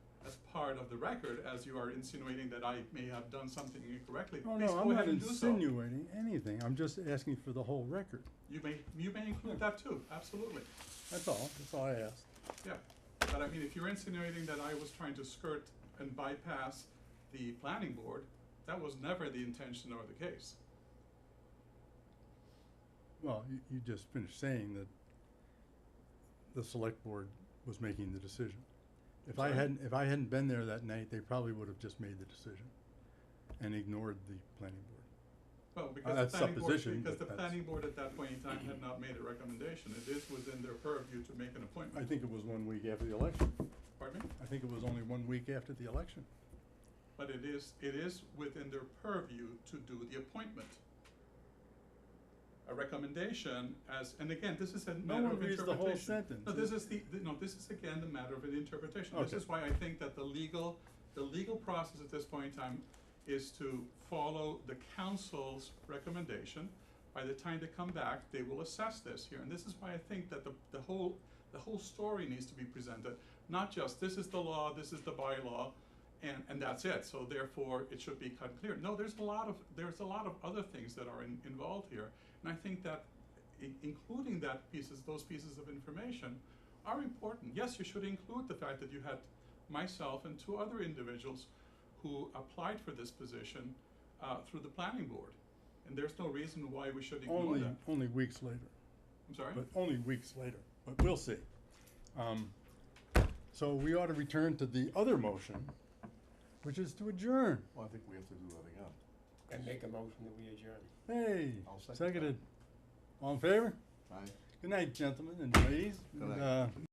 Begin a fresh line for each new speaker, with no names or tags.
part of the record, as you are insinuating that I may have done something incorrectly,
Oh,
please
no,
go
I'm
ahead
not
and do so.
insinuating anything. I'm just asking for the whole record.
You may, you may include that too, absolutely,
That's all. That's all I asked.
yeah. But I mean, if you're insinuating that I was trying to skirt and bypass the planning board, that was never the intention or the case.
Well, you, you just finished saying that the select board was making the decision. If I
Sorry?
hadn't, if I hadn't been there that night, they probably would have just made the decision and ignored the planning board.
Well, because the
that's
planning board,
supposition,
because
but
the
that's-
planning board at that point in time had not made a recommendation, it is within their purview to make an
I
appointment.
think it was one week after the election.
Pardon me?
I think it was only one week after the election.
But it is, it is within their purview to do the appointment. A recommendation as, and again, this is a matter
one
of interpretation.
reads the whole sentence.
No, this is the, th- no, this is again the matter of an interpretation. This
Okay.
is why I think that the legal, the legal process at this point in time is to follow the council's recommendation. By the time they come back, they will assess this here, and this is why I think that the, the whole, the whole story needs to be presented. Not just, this is the law, this is the bylaw, and, and that's it, so therefore it should be cut clear. No, there's a lot of, there's a lot of other things that are in, involved here, and I think that i- including that pieces, those pieces of information are important. Yes, you should include the fact that you had myself and two other individuals who applied for this position uh, through the planning board, and there's no reason why we should ignore
Only,
that.
only weeks later.
I'm sorry.
But only weeks later, but we'll see. Um, so we ought to return to the other motion, which is to adjourn.
Well, I think we have to do that again.
I make a motion that we adjourn.
Hey,
I'll second that.
seconded. All in favor?
Aye.
Good night, gentlemen and ladies.
Good
and,
night.
uh,